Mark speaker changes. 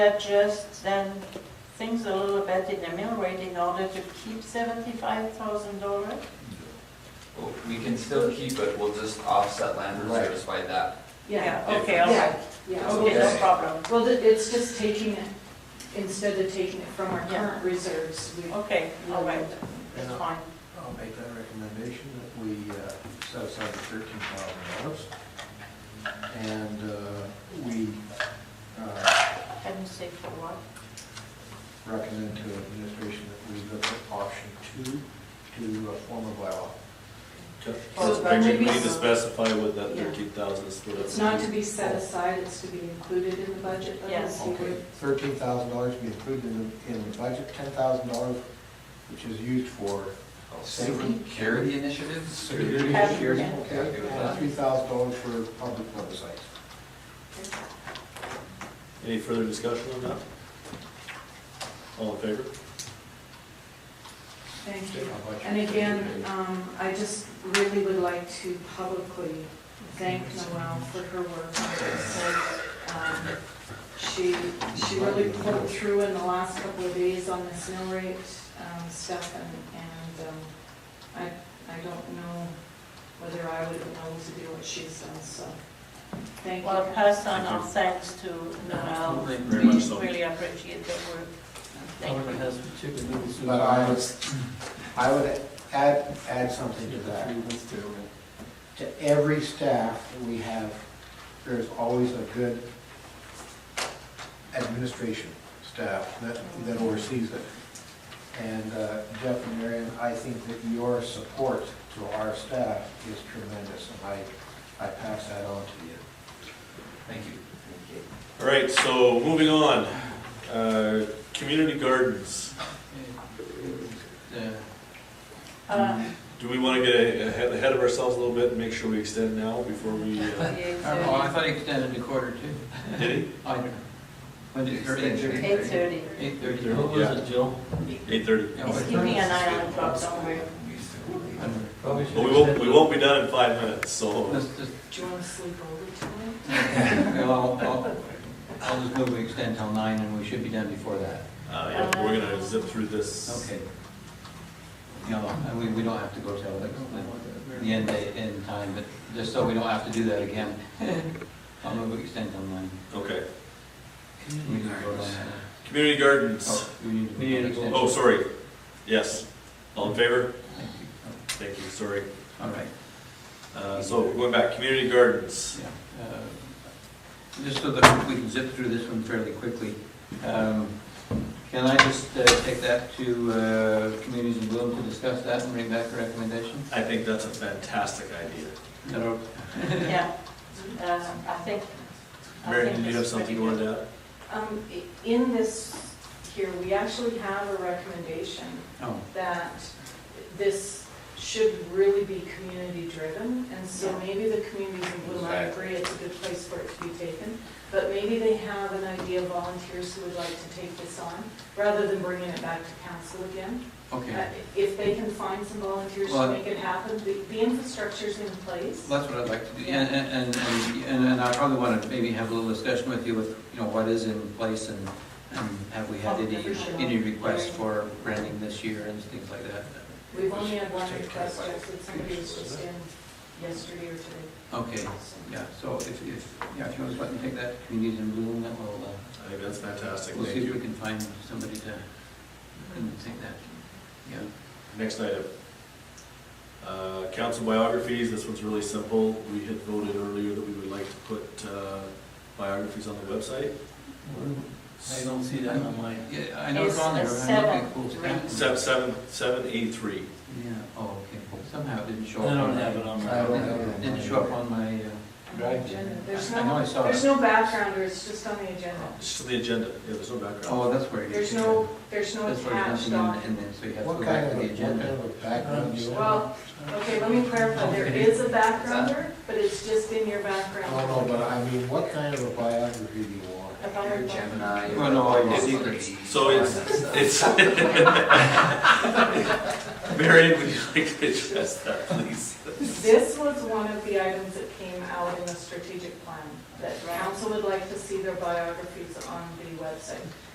Speaker 1: adjust then things a little bit in the mill rate in order to keep seventy-five thousand dollars?
Speaker 2: Well, We can still keep it, we'll just offset land reserves by that.
Speaker 3: Yeah,
Speaker 1: Okay, all
Speaker 3: yeah,
Speaker 1: right,
Speaker 3: yeah.
Speaker 1: okay, no
Speaker 2: Okay.
Speaker 1: problem,
Speaker 3: Well, th- it's just taking it, instead of taking it from our
Speaker 1: Yeah.
Speaker 3: current reserves, we.
Speaker 1: okay, all right,
Speaker 4: And
Speaker 1: that's
Speaker 4: I'll-
Speaker 1: fine.
Speaker 4: I'll make that recommendation that we uh, set aside the thirteen thousand dollars. And uh, we uh,
Speaker 1: Can you say for what?
Speaker 4: recommend to administration that we look at option two to uh, form a bylaw.
Speaker 1: Well,
Speaker 3: So
Speaker 5: I think
Speaker 3: maybe
Speaker 5: we need to
Speaker 3: it's-
Speaker 5: specify what that
Speaker 3: Yeah.
Speaker 5: thirteen thousand is split up.
Speaker 3: It's not to be set aside, it's to be included in the budget. though,
Speaker 1: Yes.
Speaker 3: so we-
Speaker 4: Okay, thirteen thousand dollars be included in the, in the budget, ten thousand dollars, which is used for
Speaker 2: Security initiatives?
Speaker 4: security,
Speaker 1: Yeah.
Speaker 4: security, okay?
Speaker 2: Happy with
Speaker 4: And
Speaker 2: that.
Speaker 4: three thousand dollars for public websites.
Speaker 5: Any further discussion on that? All in favor?
Speaker 3: Thank you.
Speaker 4: How much-
Speaker 3: And again, um, I just really would like to publicly thank Noelle for her work on this. Um, She, she really pulled through in the last couple of days on this mill rate um, stuff, and, and um, I, I don't know whether I would have known to do what she's done, so thank
Speaker 1: Well,
Speaker 3: you.
Speaker 1: pass on our thanks to Noel,
Speaker 6: Absolutely.
Speaker 1: we
Speaker 5: Very much so.
Speaker 1: really appreciate the work. Thank
Speaker 6: Everyone
Speaker 1: you.
Speaker 6: has chicken noodles.
Speaker 4: But I would, I would add, add something to that. To every staff that we have, there's always a good administration staff that, that oversees it. And uh, Jeff and Marion, I think that your support to our staff is tremendous, and I, I pass that on to you.
Speaker 2: Thank you.
Speaker 5: All right, so moving on, uh, community gardens.
Speaker 1: Uh,
Speaker 5: Do we wanna get a- ahead ahead of ourselves a little bit and make sure we extend now before we, uh,
Speaker 6: Oh, I
Speaker 1: Eight
Speaker 6: thought he extended a quarter too.
Speaker 5: did it?
Speaker 6: I don't know. When did your
Speaker 2: Extension.
Speaker 1: thirty,
Speaker 6: Eight thirty, what was
Speaker 5: Yeah.
Speaker 6: it, Jill?
Speaker 5: Eight thirty.
Speaker 6: Yeah,
Speaker 1: he's
Speaker 6: but-
Speaker 1: keeping an eye on the clock somewhere.
Speaker 6: I don't know. Probably should
Speaker 5: But we won't,
Speaker 6: extend
Speaker 5: we
Speaker 6: it.
Speaker 5: won't be done in five minutes, so. uh,
Speaker 6: Let's just,
Speaker 3: Do you want to sleep over tonight?
Speaker 6: well, I'll, I'll- I'll just move we extend till nine and we should be done before that.
Speaker 5: Uh, yeah, we're gonna zip through this.
Speaker 6: Okay. No, and we, we don't have to go till like the- the end date, end time, but just so we don't have to do that again. I'll move we extend till nine.
Speaker 5: Okay.
Speaker 6: We need to vote on that.
Speaker 5: Community gardens.
Speaker 6: Oh, we need to
Speaker 7: We need to
Speaker 6: vote on
Speaker 5: Oh,
Speaker 6: extension.
Speaker 5: sorry. Yes. All in favor?
Speaker 6: Thank you.
Speaker 5: Thank you, sorry.
Speaker 6: All right.
Speaker 5: Uh, so we're going back, community gardens.
Speaker 6: Yeah, uh, Just so that we can zip through this one fairly quickly, um, can I just uh, take that to uh, Communities in Bloom to discuss that and bring back a recommendation?
Speaker 5: I think that's a fantastic idea.
Speaker 6: Is that okay?
Speaker 1: Yeah, uh, I think. I
Speaker 5: Mary,
Speaker 1: think
Speaker 5: did you
Speaker 1: this
Speaker 5: have
Speaker 1: is
Speaker 5: something you
Speaker 1: pretty good.
Speaker 5: wanted to add?
Speaker 3: Um, i- In this here, we actually have a recommendation
Speaker 6: Oh,
Speaker 3: that this should really be community-driven, and so
Speaker 1: Yeah.
Speaker 3: maybe the communities in Bloom, I agree, it's a good place for it to be taken, but maybe they have an idea of volunteers who would like to take this on, rather than bringing it back to council again. Uh,
Speaker 6: okay.
Speaker 3: If they can find some volunteers to
Speaker 6: Well, I-
Speaker 3: make it happen, the the infrastructure's in place.
Speaker 6: That's what I'd like to do, and, and, and- and, and I probably want to maybe have a little discussion with you with, you know, what is in place and, and have we had any, any requests for branding this year and things like that?
Speaker 3: We've only had one request, Jeff, that somebody was just in yesterday or today.
Speaker 6: Okay, yeah, so if, if, yeah, if you want to let me take that to Communities in Bloom, that will, uh,
Speaker 5: I think that's fantastic,
Speaker 6: We'll
Speaker 5: thank
Speaker 6: see if we
Speaker 5: you.
Speaker 6: can find somebody to, and take that, yeah.
Speaker 5: Next item. Uh, council biographies, this one's really simple. We had voted earlier that we would like to put, uh, biographies on the website.
Speaker 6: I
Speaker 5: Se-
Speaker 6: don't-
Speaker 7: don't see that on mine.
Speaker 6: Yeah, I know it's
Speaker 1: It's
Speaker 6: on there,
Speaker 1: a
Speaker 6: but I'm looking
Speaker 1: seven,
Speaker 6: at cool
Speaker 1: right?
Speaker 6: stuff.
Speaker 5: Seven, seven, seven E three.
Speaker 6: Yeah, oh, okay, cool. somehow it didn't show
Speaker 7: I
Speaker 6: up.
Speaker 7: don't
Speaker 6: on my-
Speaker 7: have it on
Speaker 4: I
Speaker 7: my.
Speaker 4: don't have it on
Speaker 6: Didn't
Speaker 4: mine.
Speaker 6: show up on my, uh, drive.
Speaker 3: Agenda.
Speaker 6: yet.
Speaker 3: There's
Speaker 6: I- I know I saw
Speaker 3: There's
Speaker 6: it.
Speaker 3: no background, or it's just on the agenda.
Speaker 5: It's just the agenda, yeah, there's no background.
Speaker 6: Oh, that's where it is.
Speaker 3: There's no, there's no
Speaker 6: That's where there's
Speaker 3: attached
Speaker 6: nothing
Speaker 3: document.
Speaker 6: in, in there, so you have to
Speaker 4: What
Speaker 6: go
Speaker 4: kind of,
Speaker 6: back to
Speaker 4: what
Speaker 6: the
Speaker 4: kind
Speaker 6: agenda.
Speaker 4: of background do you have?
Speaker 3: Well, okay, let me clarify, there is a backgrounder, but it's just in your background.
Speaker 4: Oh, I don't know, but I mean, what kind of a biography do you want?
Speaker 2: Your Gemini. your
Speaker 6: Well, no, I
Speaker 2: Lost
Speaker 6: did.
Speaker 2: Liberty,
Speaker 5: So
Speaker 2: all
Speaker 5: it's,
Speaker 2: that stuff.
Speaker 5: it's. Marion, would you like to address that, please?
Speaker 3: This was one of the items that came out in the strategic plan, that council would like to see their biographies on the website.